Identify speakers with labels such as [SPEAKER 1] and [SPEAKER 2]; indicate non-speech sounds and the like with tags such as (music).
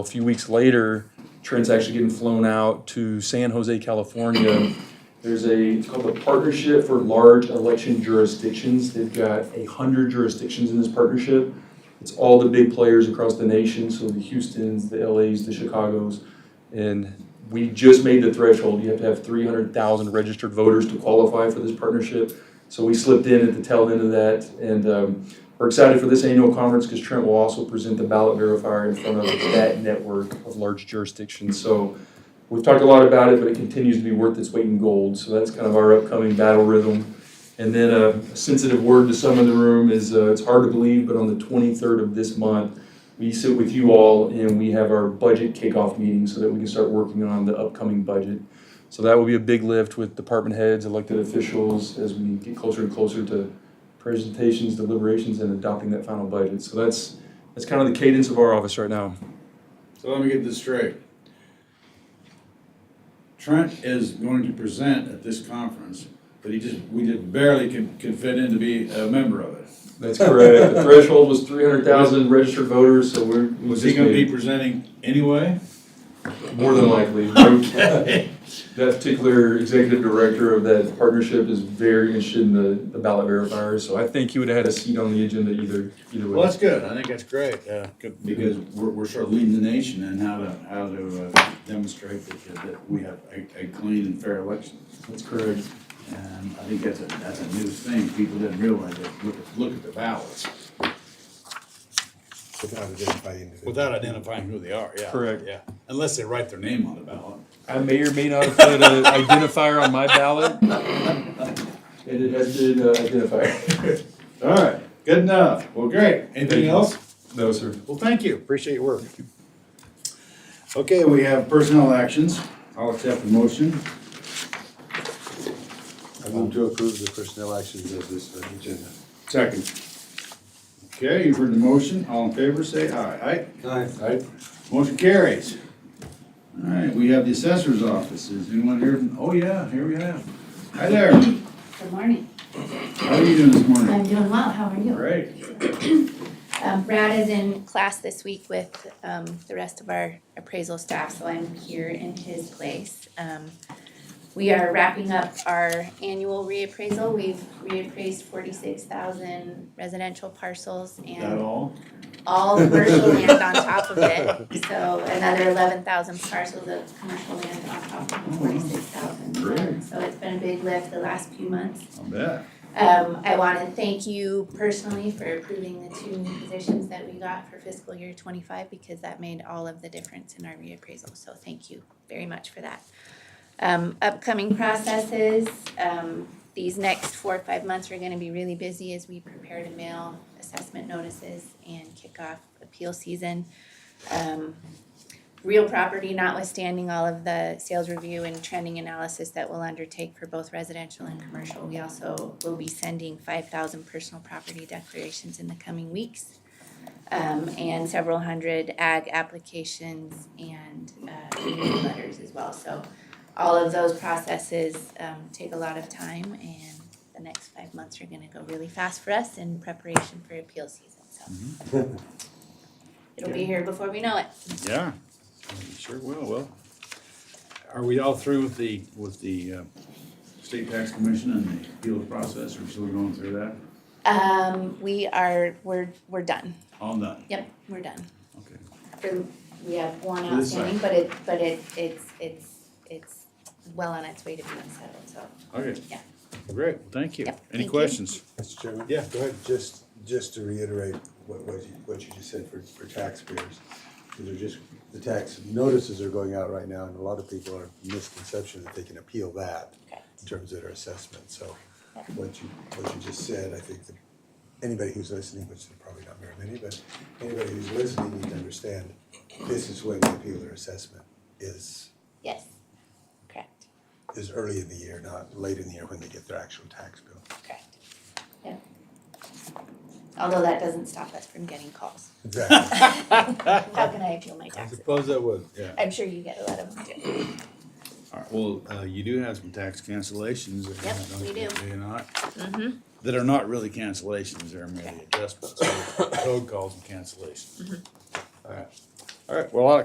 [SPEAKER 1] A few weeks later, Trent's actually getting flown out to San Jose, California. There's a, it's called the Partnership for Large Election Jurisdictions. They've got a hundred jurisdictions in this partnership. It's all the big players across the nation, so the Houstons, the LAs, the Chicagos. And we just made the threshold. You have to have three hundred thousand registered voters to qualify for this partnership. So we slipped in at the tail end of that and, um, we're excited for this annual conference because Trent will also present the ballot verifier in front of that network of large jurisdictions. So we've talked a lot about it, but it continues to be worth its weight in gold. So that's kind of our upcoming battle rhythm. And then uh, a sensitive word to some in the room is, uh, it's hard to believe, but on the 23rd of this month, we sit with you all and we have our budget kickoff meeting so that we can start working on the upcoming budget. So that will be a big lift with department heads, elected officials, as we get closer and closer to presentations, deliberations, and adopting that final budget. So that's, that's kind of the cadence of our office right now.
[SPEAKER 2] So let me get this straight. Trent is going to present at this conference, but he just, we just barely could, could fit in to be a member of it.
[SPEAKER 1] That's correct. The threshold was three hundred thousand registered voters, so we're. we
[SPEAKER 2] Was he
[SPEAKER 1] just
[SPEAKER 2] gonna be
[SPEAKER 1] made
[SPEAKER 2] presenting anyway?
[SPEAKER 1] it. More than likely. That particular executive director of that partnership is very interested in the, the ballot verifier, so I think he would have had a seat on the agenda either, either
[SPEAKER 2] Well,
[SPEAKER 1] way.
[SPEAKER 2] that's good, I think that's great, uh, c- because we're, we're sort of leading the nation in how to, how to uh, demonstrate that, that we have a, a clean and fair election.
[SPEAKER 1] That's correct.
[SPEAKER 2] And I think that's a, that's a new thing, people didn't realize it, look, at- look at the ballots.
[SPEAKER 3] Without identifying individuals.
[SPEAKER 2] Without identifying who they are, yeah.
[SPEAKER 1] Correct.
[SPEAKER 2] Yeah, unless they write their name on the ballot.
[SPEAKER 1] I may or may not have put an identifier on my ballot. And it has been uh, identified. (laughs)
[SPEAKER 2] All right, good enough. Well, great.
[SPEAKER 1] Thank
[SPEAKER 2] Anything
[SPEAKER 1] you.
[SPEAKER 2] else?
[SPEAKER 1] No, sir.
[SPEAKER 2] Well, thank you. Appreciate your work. Okay, we have personnel actions. I'll accept the motion.
[SPEAKER 3] I move to approve the personnel actions as listed on the agenda.
[SPEAKER 2] Second. Okay, you've heard the motion. All in favor, say aye.
[SPEAKER 3] Aye.
[SPEAKER 2] Aye. Motion carries. All right, we have the assessor's offices. Anyone here? from- Oh, yeah, here we have. Hi there.
[SPEAKER 4] Good morning.
[SPEAKER 2] How are you doing this
[SPEAKER 4] I'm
[SPEAKER 2] morning?
[SPEAKER 4] doing well. How are you?
[SPEAKER 2] Great.
[SPEAKER 4] Um, Brad is in class this week with, um, the rest of our appraisal staff, so I'm here in his place. Um, we are wrapping up our annual reappraisal. We've reappraised forty-six thousand residential parcels
[SPEAKER 2] Is that
[SPEAKER 4] and
[SPEAKER 2] all?
[SPEAKER 4] all commercial land on top of it. So another eleven thousand parcels of commercial land on top of forty-six thousand.
[SPEAKER 2] Great.
[SPEAKER 4] So it's been a big lift the last few months.
[SPEAKER 2] I bet.
[SPEAKER 4] Um, I want to thank you personally for approving the two new positions that we got for fiscal year twenty-five because that made all of the difference in our reappraisal, so thank you very much for that. Um, upcoming processes, um, these next four or five months are gonna be really busy as we prepare to mail assessment notices and kick off appeal season. Um, real property notwithstanding all of the sales review and trending analysis that we'll undertake for both residential and commercial, we also will be sending five thousand personal property declarations in the coming weeks. Um, and several hundred ag applications and, uh, community letters as well, so all of those processes, um, take a lot of time and the next five months are gonna go really fast for us in preparation for appeal season, so. It'll be here before we know it.
[SPEAKER 2] Yeah, we sure will, well. Are we all through with the, with the uh, state tax commission and the appeals process, or still going through that?
[SPEAKER 4] Um, we are, we're, we're done.
[SPEAKER 2] All done,
[SPEAKER 4] Yep, we're done.
[SPEAKER 2] okay.
[SPEAKER 4] For- We have one
[SPEAKER 2] For this
[SPEAKER 4] outstanding, but it, but it, it's, it's, it's well on its way to being settled, so.
[SPEAKER 2] Okay.
[SPEAKER 4] Yeah.
[SPEAKER 2] Great, well, thank you.
[SPEAKER 4] Yep, thank
[SPEAKER 2] Any
[SPEAKER 4] you.
[SPEAKER 2] questions?
[SPEAKER 3] Mr. Chairman?
[SPEAKER 2] Yeah.
[SPEAKER 3] Go ahead, just, just to reiterate what, what you, what you just said for, for taxpayers. These are just, the tax notices are going out right now, and a lot of people are misconception that they can appeal that in terms of their assessment, so what you, what you just said, I think that anybody who's listening, which there probably not very many, but anybody who's listening needs to understand, this is when the appeal or assessment is
[SPEAKER 4] Yes, correct,
[SPEAKER 3] is early in the year, not late in the year when they get their actual tax bill.
[SPEAKER 4] correct. Yeah. Although that doesn't stop us from getting
[SPEAKER 2] (laughs)
[SPEAKER 4] calls.
[SPEAKER 3] Exactly.
[SPEAKER 4] How can I appeal my taxes?
[SPEAKER 2] suppose that would. Yeah.
[SPEAKER 4] I'm sure you get a lot of them too.
[SPEAKER 2] All right, well, uh, you do have some tax cancellations. that
[SPEAKER 4] Yep,
[SPEAKER 2] don't-
[SPEAKER 4] we do. Mm-hmm.
[SPEAKER 2] they're not, that are not really cancellations, they're
[SPEAKER 4] Mm-hmm.
[SPEAKER 2] merely adjustments, code calls and cancellations. All right, all right, well, I-